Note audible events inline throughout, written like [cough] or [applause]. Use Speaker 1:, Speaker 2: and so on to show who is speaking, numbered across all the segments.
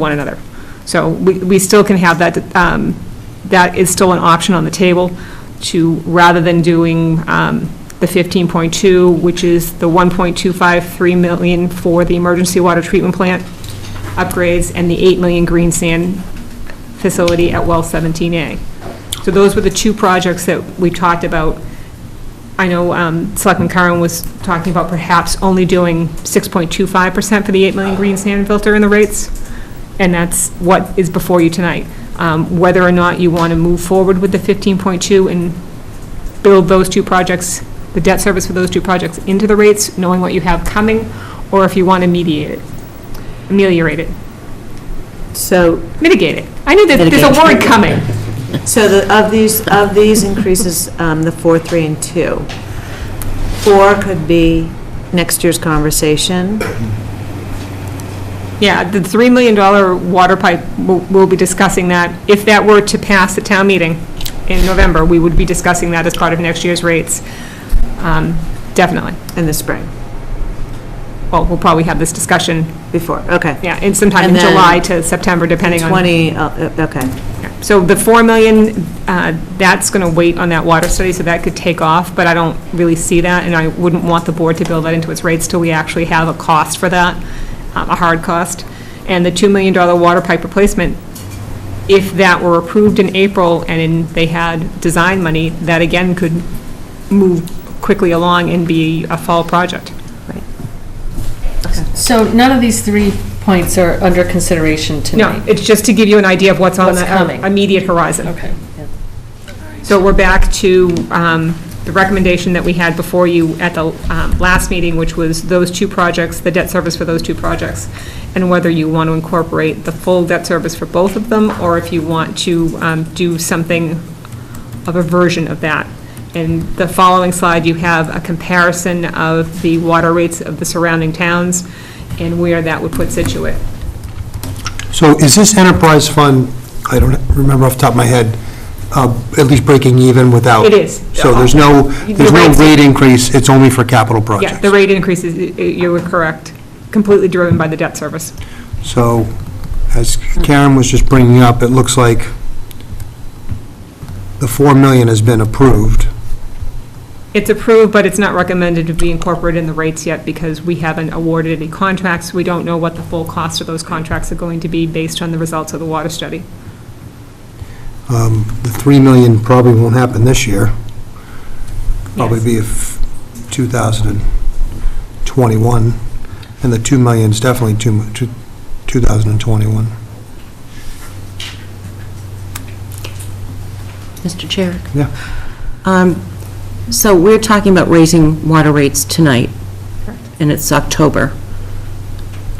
Speaker 1: one another. So we, we still can have that, um, that is still an option on the table to, rather than doing um, the 15.2, which is the 1.253 million for the emergency water treatment plant upgrades and the 8 million green sand facility at well 17A. So those were the two projects that we talked about. I know um, Selectman Curran was talking about perhaps only doing 6.25% for the 8 million green sand filter in the rates and that's what is before you tonight. Um, Whether or not you want to move forward with the 15.2 and build those two projects, the debt service for those two projects into the rates, knowing what you have coming, or if you want to mediate it, ameliorate it,
Speaker 2: So,
Speaker 1: mitigate it. I knew that there's a word
Speaker 2: Mitigate.
Speaker 1: coming.
Speaker 2: so the, of these, of these increases, um, the four, three, and two, four could be next year's conversation,
Speaker 1: Yeah, the $3 million water pipe, we'll we'll be discussing that. If that were to pass at town meeting in November, we would be discussing that as part of next year's rates, Um, definitely.
Speaker 2: in the spring,
Speaker 1: Well, we'll probably have this discussion
Speaker 2: before, okay.
Speaker 1: Yeah, and sometime in
Speaker 2: And then
Speaker 1: July to September, depending on.
Speaker 2: 20, uh, uh, okay,
Speaker 1: Yeah. So the 4 million, uh, that's going to wait on that water study, so that could take off, but I don't really see that, and I wouldn't want the board to build that into its rates till we actually have a cost for that, um, a hard cost. And the $2 million water pipe replacement, if that were approved in April and in- they had design money, that again could move quickly along and be a fall project.
Speaker 3: So none of these three points are under consideration
Speaker 1: No,
Speaker 3: tonight?
Speaker 1: it's just to give you an idea of what's on
Speaker 3: What's coming.
Speaker 1: the immediate horizon.
Speaker 3: Okay.
Speaker 1: So we're back to um, the recommendation that we had before you at the um, last meeting, which was those two projects, the debt service for those two projects, and whether you want to incorporate the full debt service for both of them, or if you want to um, do something of a version of that. In the following slide, you have a comparison of the water rates of the surrounding towns and where that would put Situate.
Speaker 4: So is this enterprise fund, I don't remember off the top of my head, uh, at least breaking even without?
Speaker 1: It is.
Speaker 4: So there's no, there's no
Speaker 1: rates-
Speaker 4: rate increase, it's only for capital
Speaker 1: Yeah, the
Speaker 4: projects?
Speaker 1: rate increases, y- y- you were correct, completely driven by the debt service.
Speaker 4: So as Karen was just bringing up, it looks like the 4 million has been approved.
Speaker 1: It's approved, but it's not recommended to be incorporated in the rates yet because we haven't awarded any contracts. We don't know what the full cost of those contracts are going to be based on the results of the water study.
Speaker 4: Um, The 3 million probably won't happen this year. Probably
Speaker 1: Yes.
Speaker 4: be if 2021, and the 2 million's definitely two mu- two- 2021.
Speaker 5: Mr. Chair?
Speaker 4: Yeah.
Speaker 5: Um, So we're talking about raising water rates tonight, and it's October.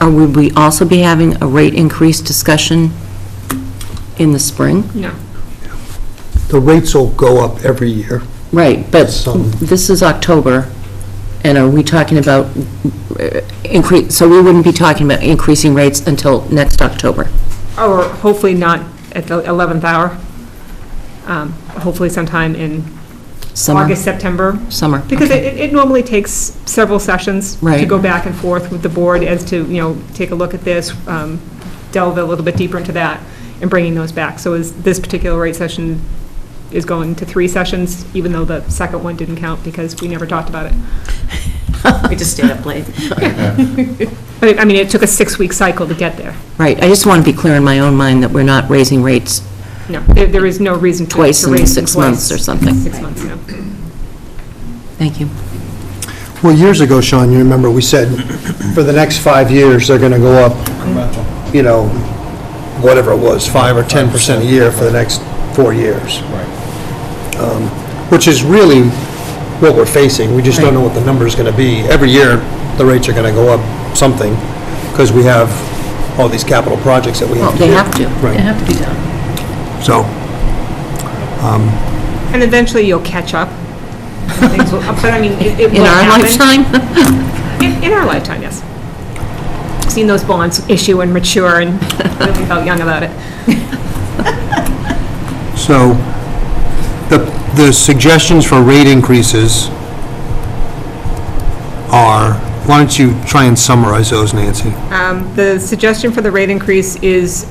Speaker 5: Or would we also be having a rate increase discussion in the spring?
Speaker 1: No.
Speaker 4: The rates will go up every year.
Speaker 5: Right, but
Speaker 4: Some.
Speaker 5: this is October, and are we talking about uh, increase, so we wouldn't be talking about increasing rates until next October?
Speaker 1: Or hopefully not at the 11th hour. Um, Hopefully sometime in
Speaker 5: Summer?
Speaker 1: August, September.
Speaker 5: Summer.
Speaker 1: Because
Speaker 5: okay.
Speaker 1: it it normally takes several sessions to
Speaker 5: Right.
Speaker 1: go back and forth with the board as to, you know, take a look at this, um, delve a little bit deeper into that, and bringing those back. So is, this particular rate session is going to three sessions, even though the second one didn't count because we never talked about it.
Speaker 2: we just stayed up late.
Speaker 1: But, it- I mean, it took a six-week cycle to get there.
Speaker 5: Right, I just want to be clear in my own mind that we're not raising rates
Speaker 1: No, there there is no reason to to raise
Speaker 5: twice
Speaker 1: it
Speaker 5: in
Speaker 1: twice.
Speaker 5: six months or something.
Speaker 1: Six months, no.
Speaker 5: Thank you.
Speaker 4: Well, years ago, Sean, you remember, we said, for the next five years, they're going to go up, you know, whatever it was, 5 or 10% a year for the next four years. Right. Which is really what we're facing. We just don't know what the number's going to be. Every year, the rates are going to go up something because we have all these capital projects that we have to
Speaker 5: Well,
Speaker 4: do.
Speaker 5: they have to.
Speaker 3: They
Speaker 4: Right,
Speaker 3: have to be done.
Speaker 4: so,
Speaker 1: And eventually you'll catch up. Things will- But I mean, it it will
Speaker 5: In our
Speaker 1: happen.
Speaker 5: lifetime?
Speaker 1: In,
Speaker 5: [laughs]
Speaker 1: in our lifetime, yes. Seen those bonds issue and mature and really felt young about it.
Speaker 4: so the, the suggestions for rate increases are why don't you try and summarize those, Nancy?
Speaker 1: Um, The suggestion for the rate increase is